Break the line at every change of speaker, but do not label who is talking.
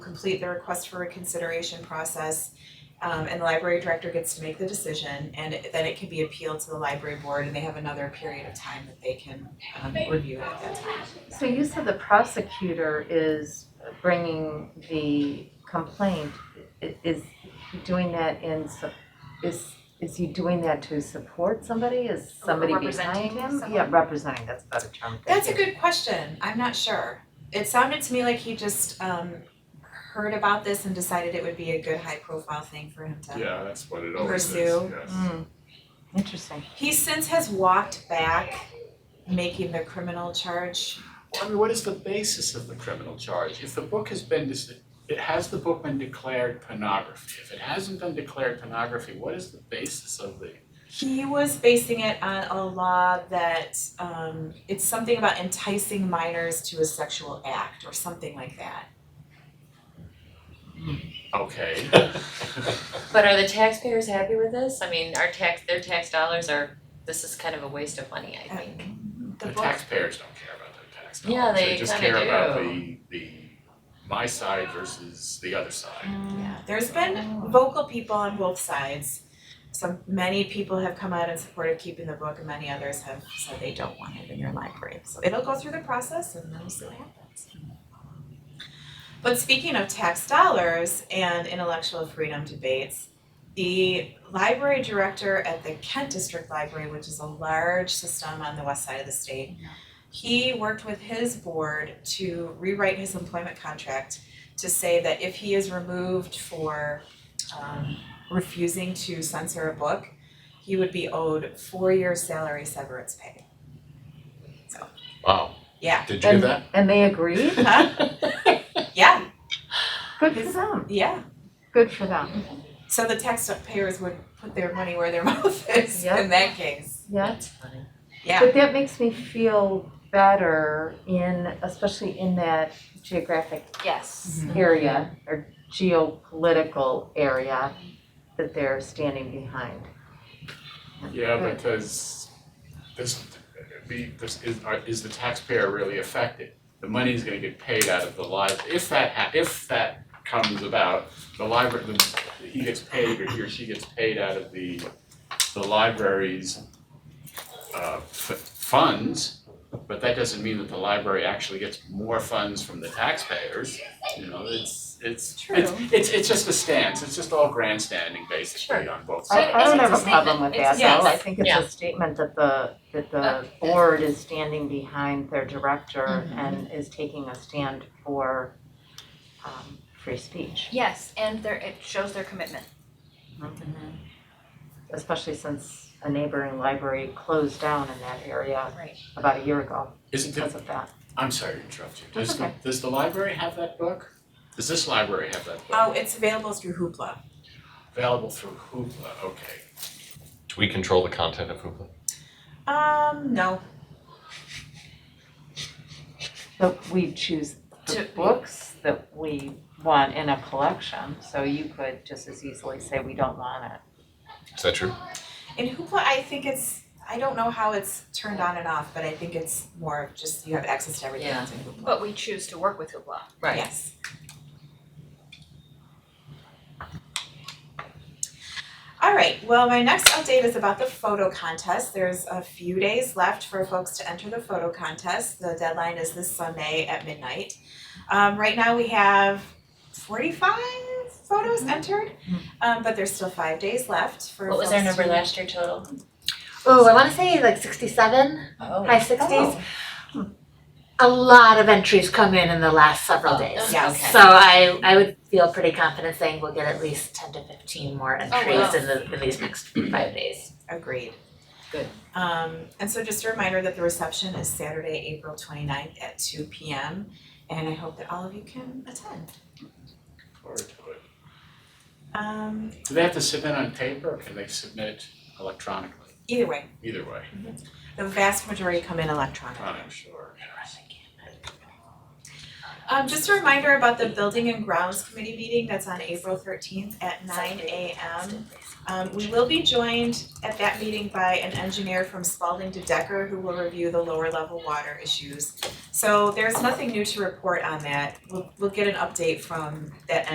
complete the request for reconsideration process. Um, and the library director gets to make the decision and it- then it can be appealed to the library board and they have another period of time that they can um review it at that time.
So you said the prosecutor is bringing the complaint, I- is he doing that in, sup- is, is he doing that to support somebody, is somebody behind
representing
him?
someone?
Yeah, representing, that's a better term, thank
That's a
you.
good question. I'm not sure. It sounded to me like he just um heard about this and decided it would be a good high profile thing for him to
Yeah, that's what it always is,
Pursue.
yes.
Hmm, interesting.
He since has walked back making the criminal charge.
I mean, what is the basis of the criminal charge? If the book has been, dis- it has the book been declared pornography? If it hasn't been declared pornography, what is the basis of the?
He was basing it on a law that um it's something about enticing minors to a sexual act or something like that.
Okay.
But are the taxpayers happy with this? I mean, our tax, their tax dollars are, this is kind of a waste of money, I think.
The
The
book,
taxpayers don't care about their tax dollars.
Yeah, they
just
kinda
care about the
do.
the my side versus the other side.
yeah, there's been vocal people on both sides. Some, many people have come out in support of keeping the book and many others have said they don't want it in your library. So it'll go through the process and then we'll see what happens. But speaking of tax dollars and intellectual freedom debates, the library director at the Kent District Library, which is a large system on the west side of the state, he worked with his board to rewrite his employment contract to say that if he is removed for um, refusing to censor a book, he would be owed four years' salary severance pay.
Wow.
Yeah.
Did
And- And they agreed?
Huh? Yeah,
Good for them,
yeah.
good for them,
So the taxpayers would put their money where their mouth is in
Yep.
that case.
yeah.
That's funny.
Yeah.
But that makes me feel better in, especially in that geographic
Yes.
Mm-hmm. area or geopolitical area that they're standing behind.
Yeah,
Right.
because this, the, this is, are- is the taxpayer really affected? The money is gonna get paid out of the library, if that ha- if that comes about, the library, the, he gets paid or he or she gets paid out of the, the library's uh, f- funds, but that doesn't mean that the library actually gets more funds from the taxpayers, you know, it's, it's, it's,
True.
it's, it's just a stance, it's just all grandstanding basically
Sure.
on both
So
sides.
I I don't
it's
have
a
a problem
statement.
with that
It's-
though, I
yes.
think it's
Yeah.
a statement that the, that the board is standing behind their director
Mm-hmm.
Mhm.
and is taking a stand for um free speech,
Yes, and there, it shows their commitment.
especially since a neighboring library closed down in that area
Right.
about a year ago
Isn't it,
because of that.
I'm sorry to interrupt you.
That's
Does the,
okay.
does the library have that book? Does this library have that book?
Oh, it's available through Hoopla.
Available through Hoopla, okay.
Do we control the content of Hoopla?
Um, no.
But we choose the
To-
books that we want in a collection, so you could just as easily say we don't want it.
Is that true?
In Hoopla, I think it's, I don't know how it's turned on and off, but I think it's more of just you have access to everything
Yeah.
that's in Hoopla.
But we choose to work with Hoopla.
Right.
Yes. All right, well, my next update is about the photo contest. There's a few days left for folks to enter the photo contest. The deadline is this Sunday at midnight. Um, right now we have forty-five photos entered, um, but there's still five days left for
Mm-hmm. What was our
folks
number
to-
last year total?
Oh, I want to say like 67,
Oh.
high 60s. A lot of entries come in in the last several days.
Oh,
Yes.
okay.
So I, I would feel pretty confident saying we'll get at least 10 to 15 more entries
Oh, wow.
in, the, in these next five days.
Agreed.
Good.
Um, and so just a reminder that the reception is Saturday, April 29th at two P M. And I hope that all of you can attend.
Forward to it.
Um,
Do they have to submit on paper or can they submit electronically?
either way,
Either way,
the vast majority come in electronically.
I'm sure.
Um, just a reminder about the Building and Grounds Committee meeting that's on April thirteenth at nine AM. Um, we will be joined at that meeting by an engineer from Spalding to Decker who will review the lower level water issues. So there's nothing new to report on that. We'll, we'll get an update from that